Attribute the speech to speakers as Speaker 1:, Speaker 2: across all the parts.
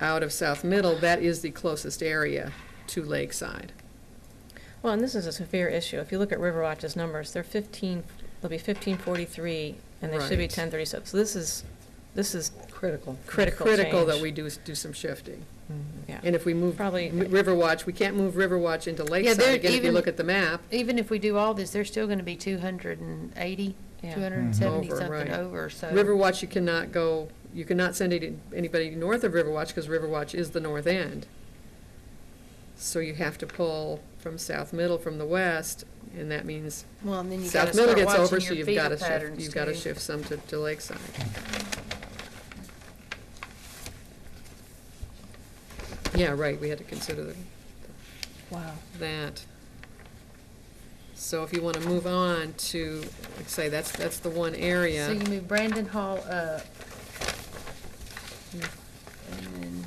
Speaker 1: out of South Middle, that is the closest area to Lakeside.
Speaker 2: Well, and this is a severe issue. If you look at Riverwatch's numbers, they're fifteen, they'll be fifteen forty-three, and they should be
Speaker 1: Right.
Speaker 2: ten thirty-six. So this is, this is
Speaker 3: Critical.
Speaker 2: critical
Speaker 1: Critical that
Speaker 2: change.
Speaker 1: we do, do some shifting.
Speaker 2: Yeah.
Speaker 1: And if we move
Speaker 2: Probably-
Speaker 1: M- Riverwatch, we can't move Riverwatch into
Speaker 4: there-
Speaker 1: Lakeside again if you
Speaker 4: even-
Speaker 1: look at the map.
Speaker 4: Even if we do all this, there's still gonna be two hundred and eighty,
Speaker 2: Yeah.
Speaker 4: two hundred and seventy
Speaker 1: Mm-hmm. Over, right.
Speaker 4: something over, so.
Speaker 1: Riverwatch, you cannot go, you cannot send any- anybody north of Riverwatch because Riverwatch is the north end. So you have to pull from South Middle, from the west, and that means
Speaker 4: Well, and then you gotta
Speaker 1: South Middle
Speaker 4: start
Speaker 1: gets over,
Speaker 4: watching
Speaker 1: so
Speaker 4: your
Speaker 1: you've got
Speaker 4: feeder
Speaker 1: to shift,
Speaker 4: patterns
Speaker 1: you've got to
Speaker 4: too.
Speaker 1: shift some to, to Lakeside. Yeah, right, we had to consider the-
Speaker 2: Wow.
Speaker 1: that. So if you want to move on to, like say, that's, that's the one
Speaker 4: So
Speaker 1: area.
Speaker 4: you move Brandon Hall up. And then.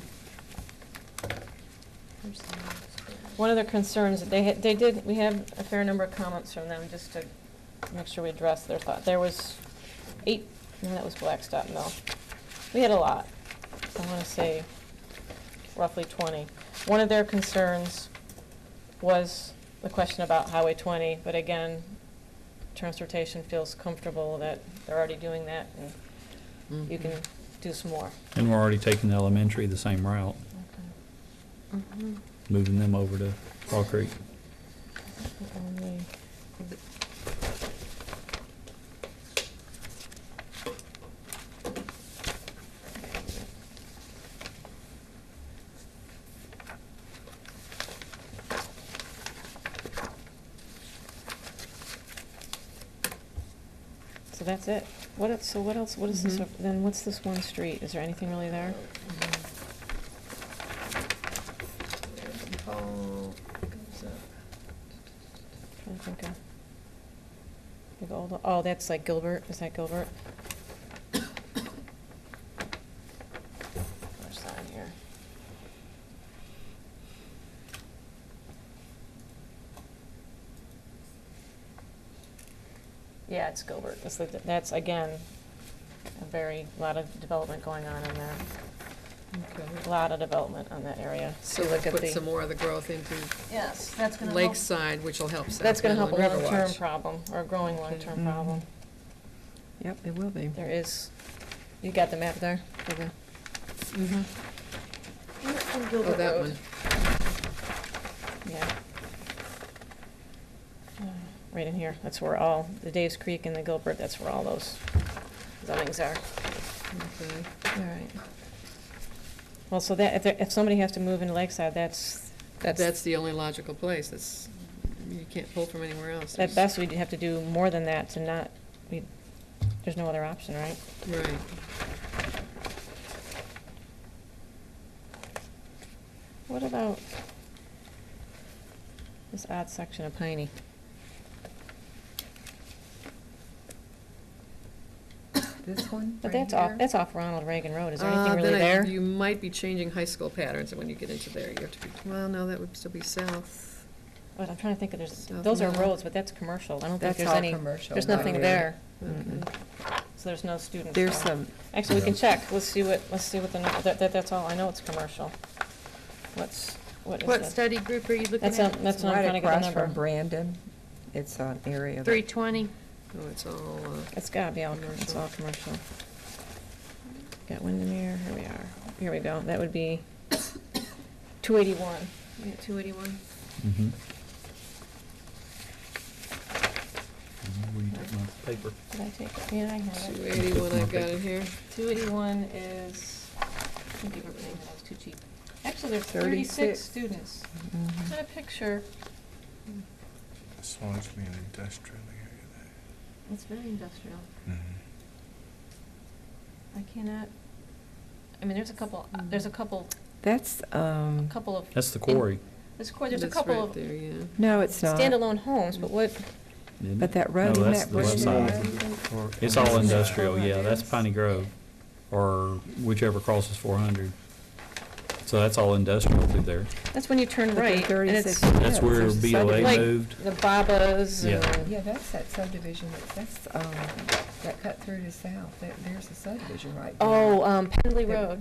Speaker 4: where's the next one?
Speaker 2: One of their concerns, that they, had- they did, we have a fair number of comments from them, just to make sure we address their thought. There was eight, no, that was Blackstop Mill. We had a lot. I want to say roughly 20. One of their concerns was the question about Highway 20, but again, transportation feels comfortable that they're already doing that, and
Speaker 1: Mm-hmm.
Speaker 2: you can do some more.
Speaker 5: And we're already taking the elementary the same route, moving them over to Fall Creek.
Speaker 2: Only- So that's it. What else, so what else, what is this,
Speaker 1: Mhm.
Speaker 2: then what's this one street? Is there anything really there?
Speaker 4: Brandon Hall goes up.
Speaker 2: Trying to think of. Like all the- Oh, that's like Gilbert, is that Gilbert? Where's that in here? Yeah, it's Gilbert, that's, the- that's again, a very, lot of development going on in there, a lot of development on that area.
Speaker 1: So
Speaker 2: If you
Speaker 1: we'll
Speaker 2: look at
Speaker 1: put
Speaker 2: the-
Speaker 1: some more of the growth into
Speaker 2: Yes, that's gonna help.
Speaker 1: Lakeside, which will help South
Speaker 2: That's gonna
Speaker 1: Middle and
Speaker 2: help a long-term
Speaker 1: Riverwatch. Mm-hmm.
Speaker 2: problem, or a growing long-term
Speaker 3: Mhm.
Speaker 2: problem.
Speaker 3: Yep, it will be.
Speaker 2: There is, you got the map there?
Speaker 1: Oh, that one.
Speaker 2: Yeah. Uh, Right in here, that's where all, the Dave's Creek and the Gilbert, that's where all those zonings are.
Speaker 1: Okay.
Speaker 2: All right. Well, so that, if, there- if somebody has to move into Lakeside, that's,
Speaker 1: That's
Speaker 2: that's,
Speaker 1: the only logical place, that's, you can't pull from anywhere else.
Speaker 2: at best, we'd have to do more than that to not, we, there's no other option, right?
Speaker 1: Right.
Speaker 2: What about this odd section of Piney?
Speaker 3: This one?
Speaker 2: But that's off, that's off Ronald Reagan Road, is there
Speaker 1: Uh,
Speaker 2: anything really
Speaker 1: then I-
Speaker 2: there?
Speaker 1: You might be changing high school patterns, and when you get into there, you have to be, well, no, that would still be south.
Speaker 2: But I'm trying to think of, there's,
Speaker 1: South
Speaker 2: those are
Speaker 1: Middle.
Speaker 2: roads, but that's commercial, I don't think
Speaker 3: That's
Speaker 2: there's
Speaker 3: all
Speaker 2: any,
Speaker 3: commercial.
Speaker 2: there's
Speaker 1: not
Speaker 2: nothing
Speaker 1: really.
Speaker 2: there,
Speaker 1: Okay.
Speaker 3: Mm-mm.
Speaker 2: so there's no students.
Speaker 3: There's
Speaker 2: there.
Speaker 3: some,
Speaker 2: Actually, we can
Speaker 5: Yeah.
Speaker 2: check, let's see what, let's see what the, nu- that, that, that's all, I know it's commercial. What's, what is
Speaker 4: What
Speaker 2: that?
Speaker 4: study group are you looking
Speaker 2: That's, on-
Speaker 4: at?
Speaker 2: that's
Speaker 3: it's
Speaker 2: what I'm trying
Speaker 3: right
Speaker 2: to get
Speaker 3: across
Speaker 2: the
Speaker 3: from
Speaker 2: number.
Speaker 3: Brandon. It's an area that.
Speaker 4: Three twenty?
Speaker 1: Oh, it's all, uh,
Speaker 2: It's gotta be all, com- it's
Speaker 1: Commercial.
Speaker 2: all commercial. Got Windermere, here we are, here we go, that would be two eighty-one.
Speaker 4: We at two eighty-one?
Speaker 5: Mhm. Where you took my paper?
Speaker 2: Did I take it? Yeah, I have
Speaker 1: two
Speaker 2: it.
Speaker 1: eighty-one I've got in here.
Speaker 2: Two eighty-one is, I think you were saying that was too cheap. Actually, there's thirty-six
Speaker 3: 36.
Speaker 2: students.
Speaker 3: Mhm.
Speaker 2: Is that a picture?
Speaker 6: This one's being industrial area
Speaker 2: It's very industrial.
Speaker 6: there.
Speaker 5: Mm-hmm.
Speaker 2: I cannot, I mean, there's a couple, uh, there's a couple,
Speaker 3: That's,
Speaker 2: a
Speaker 3: um,
Speaker 2: couple of.
Speaker 5: Mm. That's the quarry,
Speaker 2: There's, there's a
Speaker 1: That's
Speaker 2: couple
Speaker 1: right
Speaker 2: of
Speaker 1: there, yeah.
Speaker 3: no, it's not.
Speaker 2: standalone homes, but what,
Speaker 5: isn't
Speaker 3: But
Speaker 5: it?
Speaker 3: that road
Speaker 5: No,
Speaker 3: in
Speaker 5: that's
Speaker 3: that
Speaker 5: the
Speaker 3: road
Speaker 5: west side.
Speaker 6: Or-
Speaker 5: It's all
Speaker 6: or-
Speaker 5: industrial,
Speaker 2: Oh,
Speaker 5: yeah,
Speaker 2: it
Speaker 5: that's
Speaker 2: is.
Speaker 5: Piney Grove, or whichever crosses four hundred. So that's all industrial through there.
Speaker 2: that's when you turn
Speaker 3: But they're
Speaker 2: right, and it's
Speaker 3: 36
Speaker 5: That's
Speaker 3: Yeah,
Speaker 5: where
Speaker 3: there's a
Speaker 5: BLA
Speaker 2: like
Speaker 3: subdivision.
Speaker 5: moved.
Speaker 2: the Babas
Speaker 5: Yeah.
Speaker 2: and.
Speaker 3: Yeah, that's that subdivision, that- that's, um, that cut through to south, that, there's a subdivision right there.
Speaker 2: Oh, um, Pendley Road.